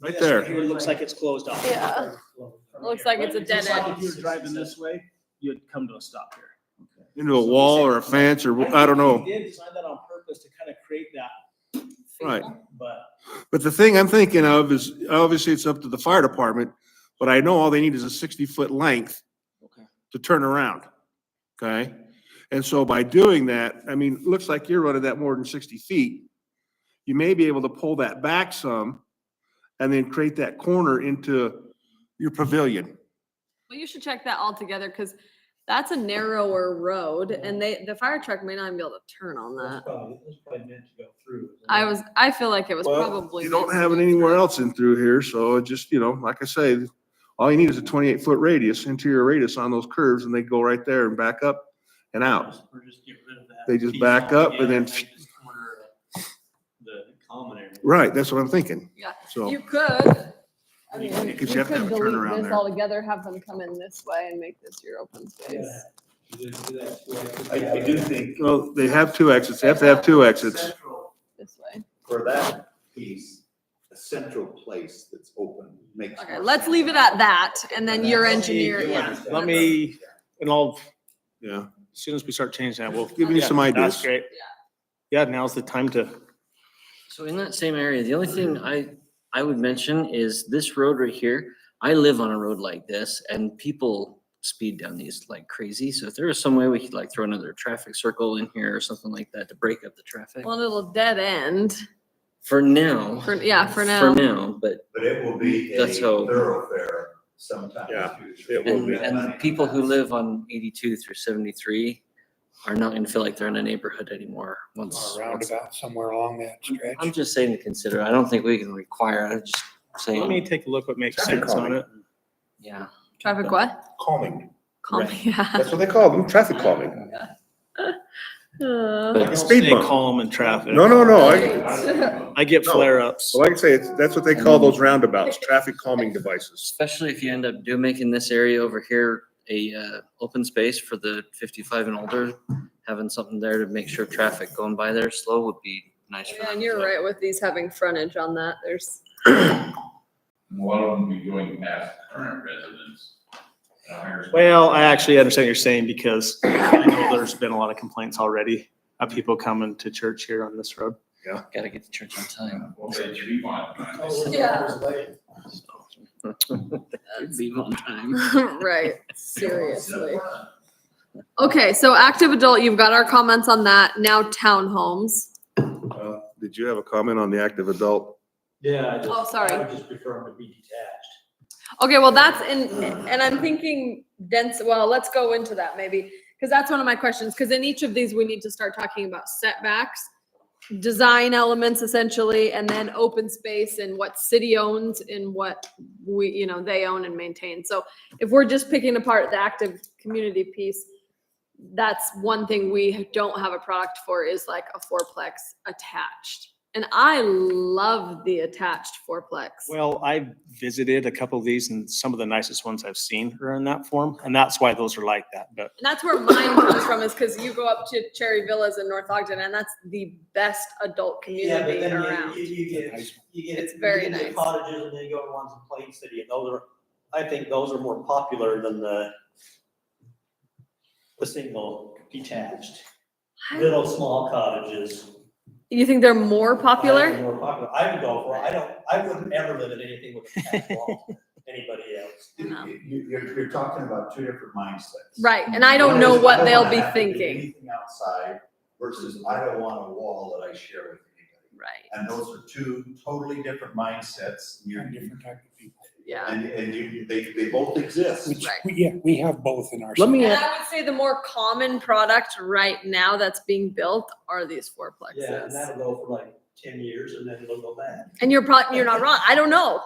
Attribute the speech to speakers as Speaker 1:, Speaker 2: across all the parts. Speaker 1: Right
Speaker 2: Yes,
Speaker 1: there.
Speaker 2: Here it looks like it's closed off.
Speaker 3: Yeah. Looks like it's a dead
Speaker 2: Just like
Speaker 3: end.
Speaker 2: If you were driving this way, you'd come to a stop here.
Speaker 1: Into a wall or a fence or, I don't know.
Speaker 2: They did design that on purpose to kind of create that,
Speaker 1: Right.
Speaker 2: but
Speaker 1: But the thing I'm thinking of is, obviously, it's up to the fire department, but I know all they need is a sixty-foot length to turn around, okay? And so by doing that, I mean, it looks like you're running that more than sixty feet. You may be able to pull that back some and then create that corner into your pavilion.
Speaker 3: Well, you should check that all together because that's a narrower road and they, the fire truck may not even be able to turn on
Speaker 4: That's
Speaker 3: that.
Speaker 4: probably, that's probably meant to go through.
Speaker 3: Uh, I was, I feel like it was
Speaker 1: Well,
Speaker 3: probably.
Speaker 1: You don't
Speaker 3: meant
Speaker 1: have it
Speaker 3: to be-
Speaker 1: anywhere else in through here, so it just, you know, like I say, all you need is a twenty-eight foot radius, interior radius on those curves, and they go right there and back up and out.
Speaker 4: Or just get rid of that.
Speaker 1: They just
Speaker 4: piece
Speaker 1: back up and
Speaker 4: altogether
Speaker 1: then-
Speaker 4: just corner The common area.
Speaker 1: Right, that's what I'm thinking.
Speaker 3: Yeah.
Speaker 1: So,
Speaker 3: You could. I mean,
Speaker 1: Yeah, 'cause
Speaker 3: you
Speaker 1: you
Speaker 3: could
Speaker 1: have to have a turnaround
Speaker 3: delete this
Speaker 1: there.
Speaker 3: altogether, have them come in this way and make this your open space.
Speaker 4: You just do that, so
Speaker 5: I, I do think
Speaker 1: well, they have two exits, they have to have two exits.
Speaker 5: central
Speaker 3: This way.
Speaker 5: for that piece, a central place that's open makes.
Speaker 3: Okay,
Speaker 5: more
Speaker 3: let's
Speaker 5: sense.
Speaker 3: leave it at that and then your
Speaker 5: Let me-
Speaker 3: engineer,
Speaker 5: you
Speaker 3: yeah.
Speaker 5: understand.
Speaker 2: let me, and I'll,
Speaker 1: Yeah,
Speaker 2: as soon as we start changing that, we'll.
Speaker 1: give me some
Speaker 2: Yeah,
Speaker 1: ideas.
Speaker 2: That's great. Yeah, now's the time to,
Speaker 6: So in that same area, the only thing I, I would mention is this road right here. I live on a road like this and people speed down these like crazy. So if there was some way we could like throw another traffic circle in here or something like that to break up the traffic.
Speaker 3: One little dead end.
Speaker 6: For now.
Speaker 3: For, yeah, for now.
Speaker 6: For now, but,
Speaker 5: But it will be a
Speaker 6: That's how-
Speaker 5: thoroughfare sometime in the future.
Speaker 1: it will
Speaker 7: Oh,
Speaker 6: and, and the people who live on eighty-two through seventy-three are not gonna feel like they're in a neighborhood anymore once.
Speaker 7: or a
Speaker 6: once-
Speaker 7: roundabout somewhere along that stretch.
Speaker 6: I'm just saying to consider. I don't think we can require, I'm just
Speaker 2: let me
Speaker 6: saying,
Speaker 2: take a look what makes
Speaker 1: Traffic
Speaker 2: sense on it.
Speaker 6: yeah.
Speaker 3: Traffic what?
Speaker 1: Calming.
Speaker 3: Calm, yeah.
Speaker 1: That's what they call them, traffic calming.
Speaker 3: Uh,
Speaker 6: But-
Speaker 2: Don't
Speaker 1: Speed
Speaker 2: Stay
Speaker 1: bump.
Speaker 2: calm in traffic.
Speaker 1: No, no, no. Oh, I,
Speaker 3: Right.
Speaker 2: I get
Speaker 1: No.
Speaker 2: flare-ups.
Speaker 1: well, like I say, it's- that's what they call those roundabouts, traffic calming devices.
Speaker 6: Especially if you end up do making this area over here a uh, open space for the fifty-five and older, having something there to make sure traffic going by there slow would be nice. for
Speaker 3: Oh, Yeah,
Speaker 6: them,
Speaker 3: and you're
Speaker 6: so.
Speaker 3: right with these having frontage on that. There's,
Speaker 8: And a lot of them be going past current residents. at a higher speed.
Speaker 2: Well, I actually understand what you're saying because I know there's been a lot of complaints already of people coming to church here on this road.
Speaker 6: Gotta get to church on time.
Speaker 8: Well, they should be
Speaker 4: Oh,
Speaker 8: modified.
Speaker 3: Yeah.
Speaker 6: Be on time.
Speaker 3: right, seriously. Okay, so active adult, you've got our comments on that. Now townhomes.
Speaker 1: Uh, Did you have a comment on the active adult?
Speaker 4: Yeah. I just-
Speaker 3: Oh, sorry.
Speaker 4: I would just prefer them to be detached.
Speaker 3: Okay, well, that's in, and I'm thinking dense, well, let's go into that maybe, because that's one of my questions, because in each of these, we need to start talking about setbacks, design elements essentially, and then open space and what city owns and what we, you know, they own and maintain. So if we're just picking apart the active community piece, that's one thing we don't have a product for is like a fourplex attached. And I love the attached fourplex.
Speaker 2: Well, I visited a couple of these and some of the nicest ones I've seen are in that form, and that's why those are like that, but
Speaker 3: And that's where mine comes from is because you go up to Cherry Villas in North Ogden and that's the best adult
Speaker 4: Yeah, but
Speaker 3: community
Speaker 4: then
Speaker 3: around.
Speaker 4: You you- you get, you get.
Speaker 3: It's very
Speaker 4: you get the
Speaker 3: nice.
Speaker 4: Cottages and then you go to ones in Plain City and those are, I think those are more popular than the the single detached, little small cottages.
Speaker 3: You think they're more
Speaker 4: I think
Speaker 3: popular?
Speaker 4: More popular. I would go for, I don't, I wouldn't ever live in anything with a attached wall, to anybody else.
Speaker 3: I know.
Speaker 5: You, you- you're, you're talking about two different mindsets.
Speaker 3: Right, and I don't
Speaker 5: One
Speaker 3: know
Speaker 5: is,
Speaker 3: what
Speaker 5: don't
Speaker 3: they'll
Speaker 5: wanna
Speaker 3: be
Speaker 5: have to do
Speaker 3: thinking.
Speaker 5: Anything outside versus I don't want a wall that I share with anybody.
Speaker 3: Right,
Speaker 5: And those are two totally different mindsets. You're,
Speaker 7: Different type of people.
Speaker 3: yeah.
Speaker 5: and, and you, they, they both exist.
Speaker 7: Which,
Speaker 3: Right.
Speaker 7: we- yeah, we have both in our.
Speaker 6: Let me
Speaker 3: And
Speaker 6: ask-
Speaker 3: I would say the more common product right now that's being built are these
Speaker 4: Yeah, and
Speaker 3: fourplexes.
Speaker 4: that'll go for like ten years and then they'll go back.
Speaker 3: And you're probably, you're not wrong. I don't know.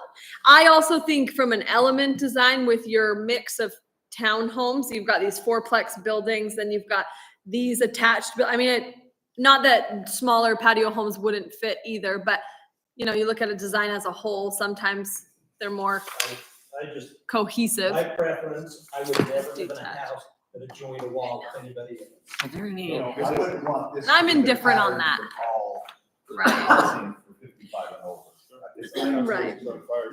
Speaker 3: I also think from an element design with your mix of townhomes, you've got these fourplex buildings, then you've got these attached, bu- I mean, it, not that smaller patio homes wouldn't fit either, but you know, you look at a design as a whole, sometimes they're more
Speaker 4: I just, my
Speaker 3: cohesive.
Speaker 4: preference, I would never live in a
Speaker 3: Detached.
Speaker 4: house that adjoined a wall with anybody else.
Speaker 6: Are there any?
Speaker 5: You know, I wouldn't want this.
Speaker 3: I'm
Speaker 5: to be the
Speaker 3: indifferent on
Speaker 5: pattern
Speaker 3: that.
Speaker 5: for all
Speaker 3: Right.
Speaker 5: housing for 55 and over. I just- I don't think
Speaker 3: Right.
Speaker 5: it's gonna fire